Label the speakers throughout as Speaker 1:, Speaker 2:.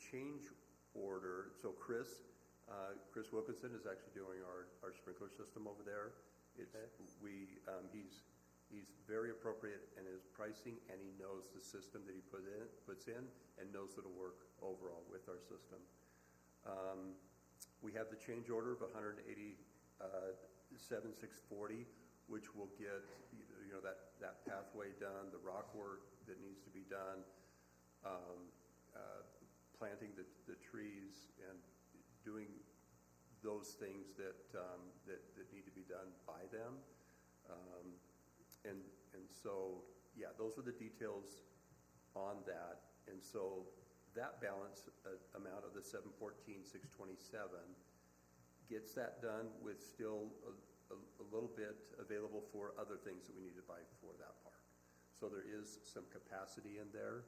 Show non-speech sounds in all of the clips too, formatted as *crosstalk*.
Speaker 1: change order, so Chris, uh, Chris Wilkinson is actually doing our, our sprinkler system over there. It's,
Speaker 2: Okay.
Speaker 1: we, um, he's, he's very appropriate in his pricing, and he knows the system that he put in, puts in, and knows it'll work overall with our system. Um, we have the change order of uh, 187,640, which will get, you know, that, that pathway done, the rock work that needs to be done, um, uh, planting the, the trees and doing those things that, um, that, that need to be done by them. Um, and, and so, yeah, those are the details on that. And so that balance uh, amount of the seven fourteen, six twenty-seven gets that done with still a, a, a little bit available for other things that we need to buy for that park. So there is some capacity in there,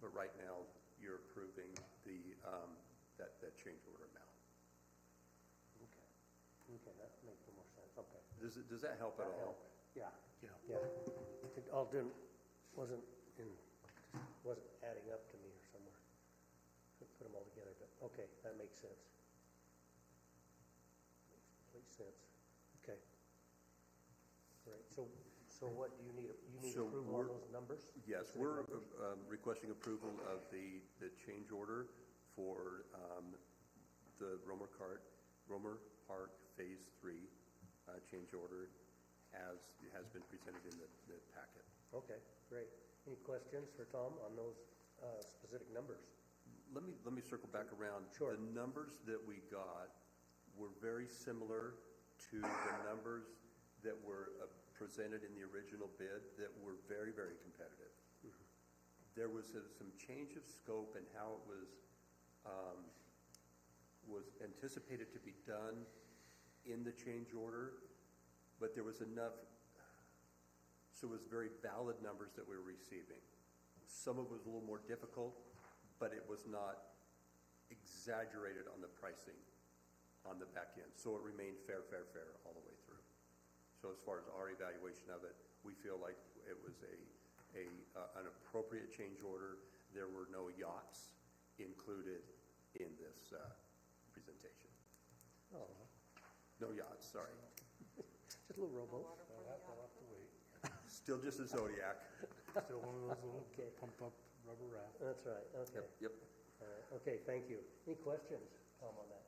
Speaker 1: but right now you're approving the, um, that, that change order amount.
Speaker 2: Okay, okay, that makes more sense, okay.
Speaker 1: Does, it- does that help at
Speaker 2: That
Speaker 1: all?
Speaker 2: helped. Yeah,
Speaker 1: Yeah.
Speaker 2: yeah. It all didn't, wasn't in, wasn't adding up to me or somewhere. Couldn't put them all together, but, okay, that makes sense. Makes complete sense, okay. Great, so, so what do you need, you need
Speaker 1: So
Speaker 2: approval on
Speaker 1: we're-
Speaker 2: those numbers?
Speaker 1: Yes,
Speaker 2: Those
Speaker 1: we're
Speaker 2: numbers?
Speaker 1: um, requesting approval of the, the change order for um, the Romer Cart, Romer Park Phase Three uh, change order as it has been presented in the, the packet.
Speaker 2: Okay, great. Any questions for Tom on those, uh, specific numbers?
Speaker 1: Let me, let me circle back around.
Speaker 2: Sure.
Speaker 1: The numbers that we got were very similar to the numbers that were uh, presented in the original bid that were very, very competitive. There was a- some change of scope and how it was, um, was anticipated to be done in the change order, but there was enough, so it was very valid numbers that we were receiving. Some of it was a little more difficult, but it was not exaggerated on the pricing on the back end. So it remained fair, fair, fair all the way through. So as far as our evaluation of it, we feel like it was a, a, uh, an appropriate change order. There were no yachts included in this, uh, presentation.
Speaker 2: Oh,
Speaker 1: No yachts, sorry.
Speaker 2: just a little rowboat.
Speaker 3: We'll have, we'll have to wait.
Speaker 1: Still just a Zodiac.
Speaker 3: Still one of those little
Speaker 2: *laughs* Okay.
Speaker 3: pump-up rubber raft.
Speaker 2: That's right, okay.
Speaker 1: Yep.
Speaker 2: All right, Uh, okay, thank you. Any questions, Tom, on that?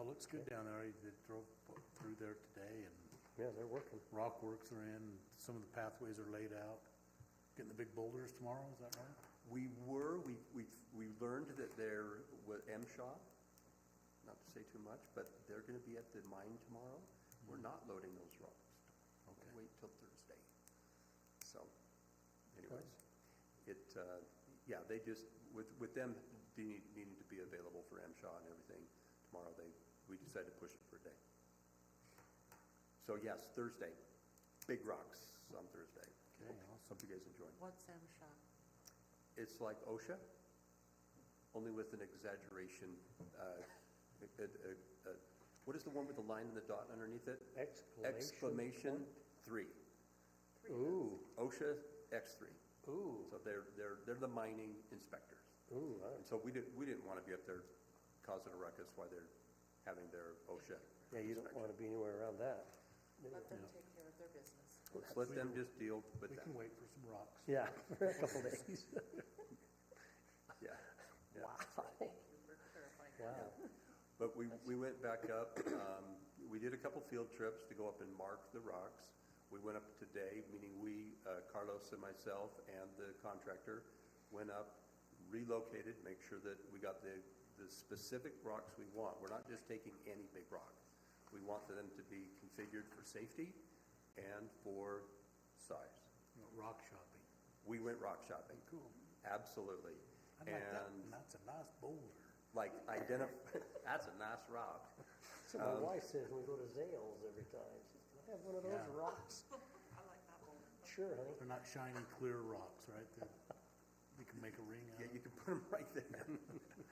Speaker 3: Oh, looks good down there. I did- drove through there today and
Speaker 2: Yeah, they're working.
Speaker 3: rock works are in. Some of the pathways are laid out. Getting the big boulders tomorrow, is that right?
Speaker 1: We were, we, we, we learned that there was MSHA, not to say too much, but they're gonna be at the mine tomorrow. We're not loading those rocks.
Speaker 3: Okay.
Speaker 1: Wait till Thursday. So anyways, it, uh, yeah, they just, with, with them needing, needing to be available for MSHA and everything tomorrow, they, we decided to push it for a day. So yes, Thursday, big rocks on Thursday.
Speaker 3: Okay, awesome.
Speaker 1: Hope you guys enjoy.
Speaker 4: What's MSHA?
Speaker 1: It's like OSHA, only with an exaggeration. uh, *laughs* a- a- a- What is the one with the line and the dot underneath it?
Speaker 2: Exclamation.
Speaker 1: Exclamation three.
Speaker 2: Ooh,
Speaker 1: OSHA X three.
Speaker 2: ooh,
Speaker 1: So they're, they're, they're the mining inspectors.
Speaker 2: ooh, all
Speaker 1: And
Speaker 2: right.
Speaker 1: so we didn't, we didn't want to be up there causing a ruckus while they're having their
Speaker 2: Oh,
Speaker 1: OSHA.
Speaker 2: yeah, you don't want to be anywhere around that.
Speaker 4: Let them take care of their business.
Speaker 1: Let's let them just deal with
Speaker 3: We
Speaker 1: that.
Speaker 3: can wait for some rocks.
Speaker 2: Yeah, *laughs* for a couple *laughs* days.
Speaker 1: Yeah. Yeah.
Speaker 2: Wow.
Speaker 4: Thank you for clarifying.
Speaker 2: Wow,
Speaker 1: But we, we went back up, um, we did a couple field trips to go up and mark the rocks. We went up today, meaning we, uh, Carlos and myself and the contractor, went up, relocated, make sure that we got the, the specific rocks we want. We're not just taking any big rock. We want them to be configured for safety and for size.
Speaker 3: You know, Rock shopping.
Speaker 1: We went rock shopping,
Speaker 3: Cool.
Speaker 1: absolutely.
Speaker 3: I like that.
Speaker 1: And
Speaker 3: And that's a nice boulder.
Speaker 1: like identif, *laughs* that's a nice rock.
Speaker 2: so my wife says when we go to Zales every time, she's, can I have one of those
Speaker 3: Yeah.
Speaker 2: rocks?
Speaker 4: I like that one.
Speaker 2: Sure, honey.
Speaker 3: They're not shiny, clear rocks, right? They're- You can make a ring out
Speaker 1: Yeah,
Speaker 3: of
Speaker 1: you
Speaker 3: it.
Speaker 1: can put them right there.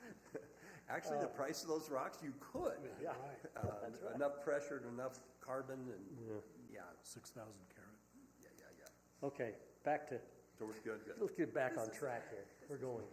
Speaker 1: *laughs* Actually, the price of those rocks, you could.
Speaker 2: Yeah.
Speaker 3: Right.
Speaker 1: Um, Enough pressure and enough carbon and, yeah,
Speaker 3: Six thousand carat.
Speaker 1: yeah, yeah, yeah.
Speaker 2: Okay, back to,
Speaker 1: So we're good, good.
Speaker 2: let's get back on track here. We're going.